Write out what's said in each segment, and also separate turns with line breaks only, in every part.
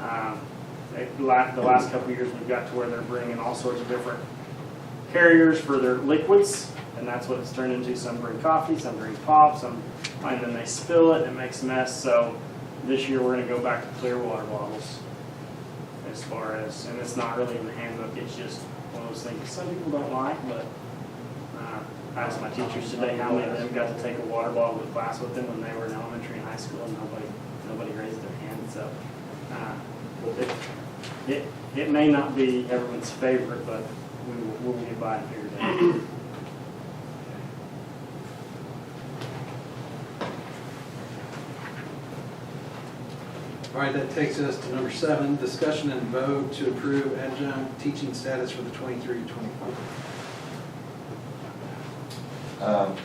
like, Um, the la- the last couple of years, we've got to where they're bringing all sorts of different carriers for their liquids, and that's what it's turned into. Some bring coffee, some bring pop, some, and then they spill it, and it makes a mess. So this year, we're gonna go back to clear water bottles as far as, and it's not really in the handbook, it's just one of those things some people don't like, but uh, I asked my teachers today how many of them got to take a water bottle to class with them when they were in elementary and high school, and nobody, nobody raised their hand, so. uh, it- It, it may not be everyone's favorite, but we will, we'll get by and figure it out.
All right, that takes us to number seven, discussion and vote to approve adjunct teaching status for the 23-24.
Um,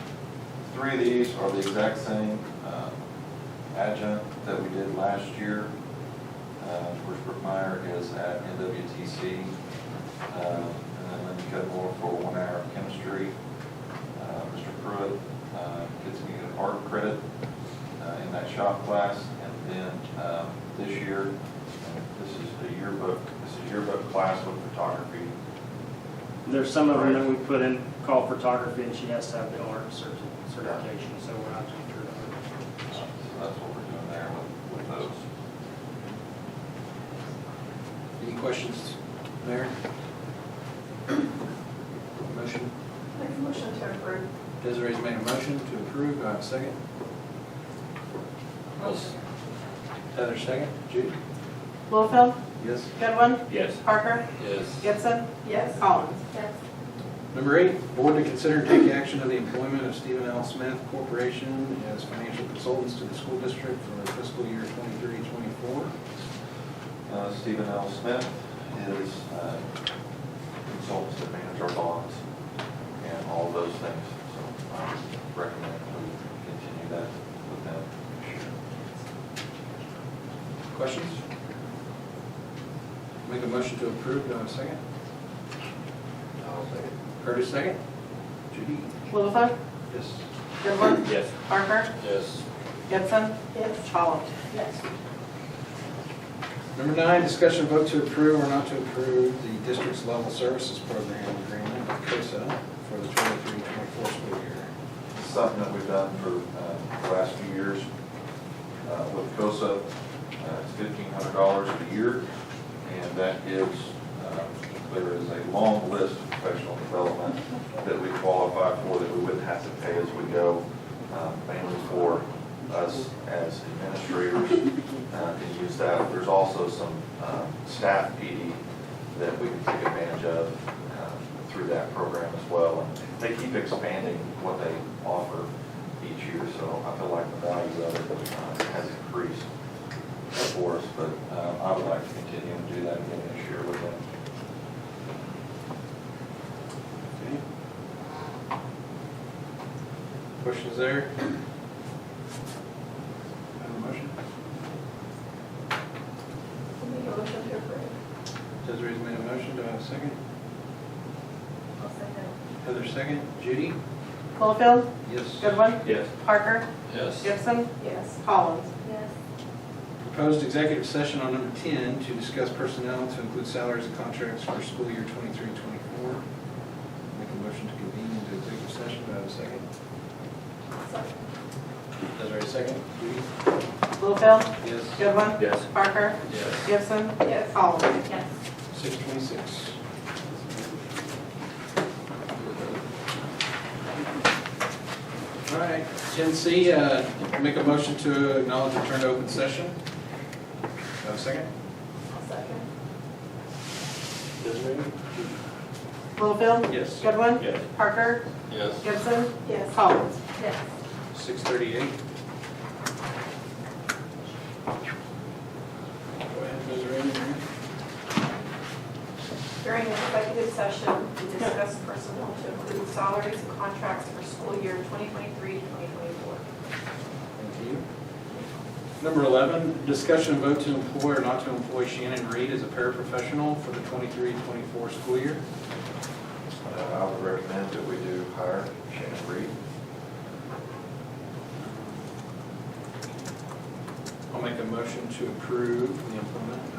Three of these are the exact same um, adjunct that we did last year. Uh, Bruce Brookmeyer is at NWTC, um, and then Lindsay Cudmore for one hour of chemistry. Uh, Mr. Pruitt uh, gets me an art credit uh, in that shop class, and then um, this year, this is the yearbook, this is yearbook class with photography.
There's some of them that we put in, call photography, and she has to have the art certi- certification, so we're not doing her.
Uh, So that's what we're doing there with, with those.
Any questions, Mayor? Motion,
Make a motion to approve.
Desiree's made a motion to approve, do I have a second? Heather, second, Judy?
Littlefield,
Yes.
Goodwin,
Yes.
Parker,
Yes.
Gibson,
Yes.
Collins.
Yes.
Number eight, board to consider and take action on the employment of Stephen L. Smith Corporation as financial consultants to the school district for fiscal year 23-24.
Uh, Stephen L. Smith is uh, consultants that manage our bonds and all those things. So I recommend we continue that with them.
Questions? Make a motion to approve, do I have a second?
I'll second.
Curtis, second? Judy?
Littlefield,
Yes.
Goodwin,
Yes.
Parker,
Yes.
Gibson,
Yes.
Collins.
Yes.
Number nine, discussion vote to approve or not to approve the district's level services program agreement with COSA for the 23-24 school year.
Something that we've done for uh, the last few years uh, with COSA. uh, It's fifteen hundred dollars a year, and that gives, um, there is a long list of professional development that we qualify for that we wouldn't have to pay as we go, um, mainly for us as administrators uh, to use that. There's also some um, staff PD that we can take advantage of um, through that program as well. And They keep expanding what they offer each year, so I feel like the value of it uh, has increased for us, but uh, I would like to continue and do that again this year with them.
Okay. Questions there? Have a motion?
Make a motion to approve.
Desiree's made a motion, do I have a second?
I'll second.
Heather, second? Judy?
Littlefield,
Yes.
Goodwin,
Yes.
Parker,
Yes.
Gibson,
Yes.
Collins.
Yes.
Proposed executive session on number 10 to discuss personnel to include salaries and contracts for school year 23, 24. Make a motion to convene into executive session, do I have a second?
Second.
Desiree, second. Judy?
Littlefield,
Yes.
Goodwin.
Yes.
Parker,
Yes.
Gibson,
Yes.
Collins.
Yes.
6:26. All right, 10C, uh, make a motion to acknowledge return to open session. Do I have a second?
I'll second.
Desiree?
Littlefield,
Yes.
Goodwin,
Yes.
Parker,
Yes.
Gibson,
Yes.
Collins.
Yes.
6:38. Go ahead, Desiree.
During the executive session, we discussed personnel to include salaries and contracts for school year 2023-2024.
Thank you. Number 11, discussion and vote to employ or not to employ Shannon Reed as a paraprofessional for the 23-24 school year.
Uh, I would recommend that we do hire Shannon Reed.
I'll make a motion to approve the employment